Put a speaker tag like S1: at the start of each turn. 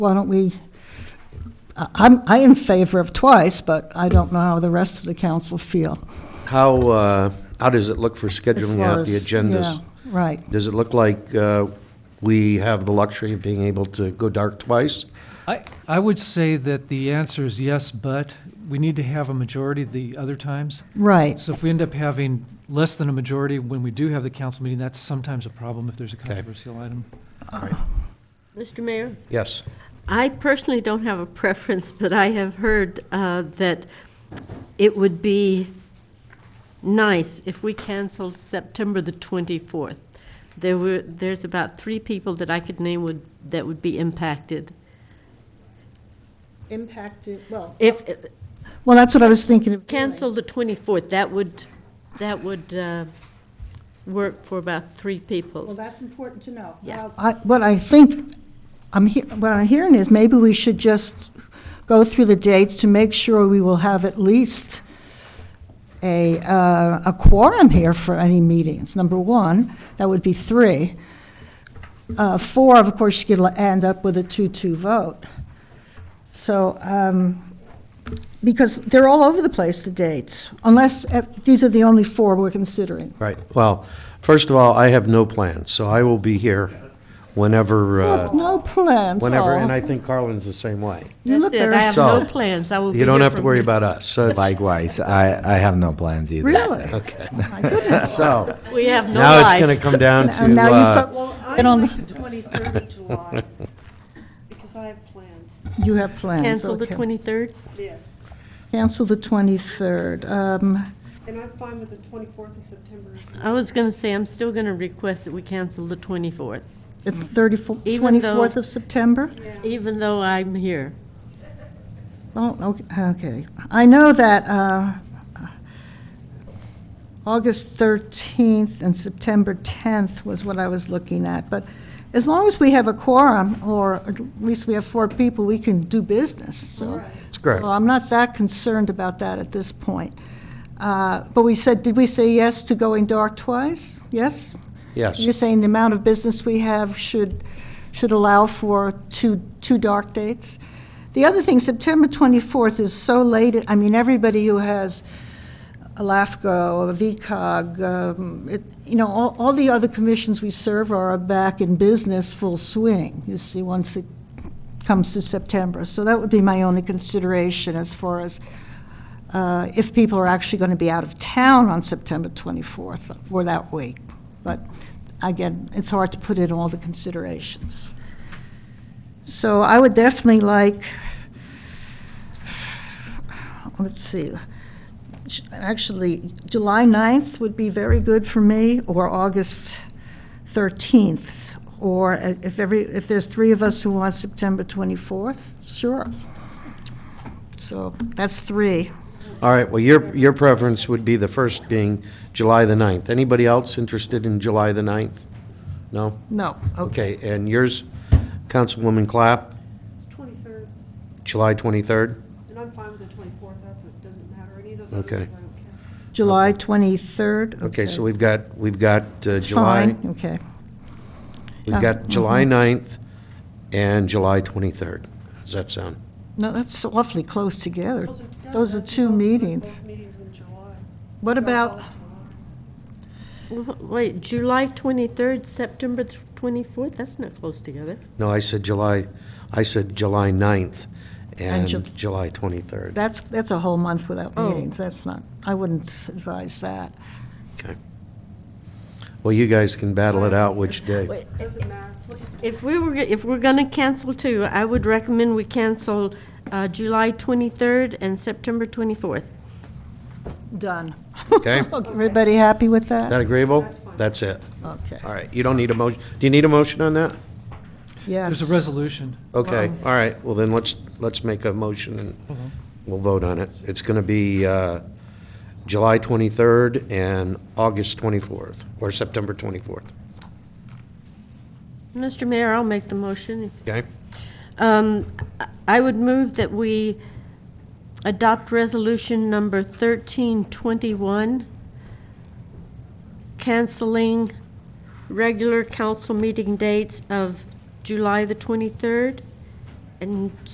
S1: why don't we, I- I'm, I am in favor of twice, but I don't know how the rest of the council feel.
S2: How, uh, how does it look for
S1: as
S2: scheduling
S1: far
S2: out the
S1: as- yeah,
S2: agendas?
S1: Right.
S2: Does it look like uh, we have the luxury of being able to go dark twice?
S3: I, I would say that the answer is yes, but we need to have a majority the other times.
S1: Right,
S3: So if we end up having less than a majority when we do have the council meeting, that's sometimes a problem if there's a controversial item.
S4: Mr. Mayor,
S2: Yes.
S4: I personally don't have a preference, but I have heard uh, that it would be nice if we canceled September the 24th. There were, there's about three people that I could name would, that would be impacted.
S1: impacted, well.
S4: If,
S1: Well, that's what I was thinking of. doing.
S4: cancel the 24th, that would, that would uh, work for about three
S1: Well,
S4: people.
S1: that's important to know.
S4: Yeah.
S1: Well, I- What I think, I'm, he- what I'm hearing is maybe we should just go through the dates to make sure we will have at least a, uh, a quorum here for any meetings, number one. That would be three. Uh, Four, of course, you could li- end up with a two-two vote. So, um, because they're all over the place, the dates, unless, eh, these are the only four we're considering.
S2: Right. Well, first of all, I have no plans, so I will be here whenever, uh,
S1: No plans,
S2: whenever,
S1: oh.
S2: and I think Carlin's the same way.
S1: You look
S4: That's it,
S1: very
S4: I have
S2: So,
S4: no plans, I will be
S2: You don't
S4: here
S2: have to
S4: from
S2: worry
S4: here.
S2: about us, so it's,
S5: Likewise, I, I have no plans either.
S1: Really?
S2: okay.
S1: My goodness.
S2: So,
S4: We have no
S2: now it's
S4: life.
S2: gonna come down to,
S1: And now you
S2: uh,
S1: felt- get on the-
S6: the 23rd of July, because I have plans,
S1: you have plans.
S4: Cancel the
S1: okay.
S4: 23rd?
S6: yes.
S1: Cancel the 23rd. Um,
S6: And I'm fine with the 24th of September. as well.
S4: I was going to say, I'm still going to request that we cancel the 24th,
S1: The 34
S4: Even though-
S1: 24th of September?
S4: even though I'm here.
S1: Oh, ok- okay. I know that uh, August 13th and September 10th was what I was looking at, but as long as we have a quorum, or at least we have four people, we can do business, so.
S2: That's correct.
S1: So I'm not that concerned about that at this point. Uh, But we said, did we say yes to going dark twice? Yes?
S2: yes.
S1: You're saying the amount of business we have should, should allow for two, two dark dates? The other thing, September 24th is so late, I mean, everybody who has a LAFCO, a VCOG, um, it- you know, all, all the other commissions we serve are back in business full swing, you see, once it comes to September. So that would be my only consideration as far as uh, if people are actually going to be out of town on September 24th or that week. But again, it's hard to put in all the considerations. So I would definitely like, let's see, actually, July 9th would be very good for me, or August 13th, or if every, if there's three of us who want September 24th, sure. So that's three.
S2: All right, well, your, your preference would be the first being July the 9th. Anybody else interested in July the 9th? No?
S1: No, oh, okay.
S2: Okay, and yours, Councilwoman Clapp,
S6: It's 23rd,
S2: July 23rd?
S6: and I'm fine with the 24th, that's, it doesn't matter, any of those other
S2: Okay.
S6: days, I don't care.
S1: July 23rd?
S2: Okay, so we've got, we've got uh,
S1: It's
S2: July,
S1: fine, okay.
S2: we've got July 9th and July 23rd. Does that sound?
S1: No, that's awfully close together.
S6: Those are-
S1: Those are
S6: that's
S1: two
S6: both-
S1: meetings.
S6: Both meetings in July.
S1: What
S6: They're all
S1: about,
S6: in July.
S4: W- Wait, July 23rd, September th- 24th, that's not close together.
S2: No, I said July, I said July 9th and
S1: Ju-
S2: July 23rd.
S1: that's, that's a whole month without
S4: Oh.
S1: meetings, that's not, I wouldn't advise that.
S2: Okay. Well, you guys can battle it out which day.
S4: Wait,
S6: Doesn't matter,
S4: If we were, if we're going to cancel two, I would recommend we cancel uh, July 23rd and September 24th.
S1: Done.
S2: Okay.
S1: Everybody happy with
S2: Is
S1: that?
S2: that agreeable? That's it.
S1: Okay,
S2: All right, you don't need a motion, do you need a motion on that?
S1: yes.
S3: There's a resolution.
S2: Okay, all right, well then, let's, let's make a motion and we'll vote on it. It's gonna be, uh, July twenty-third and August twenty-fourth, or September twenty-fourth,
S4: Mr. Mayor, I'll make the motion if
S2: okay?
S4: Um, I- I would move that we adopt resolution number 1321, canceling regular council meeting dates of July the 23rd And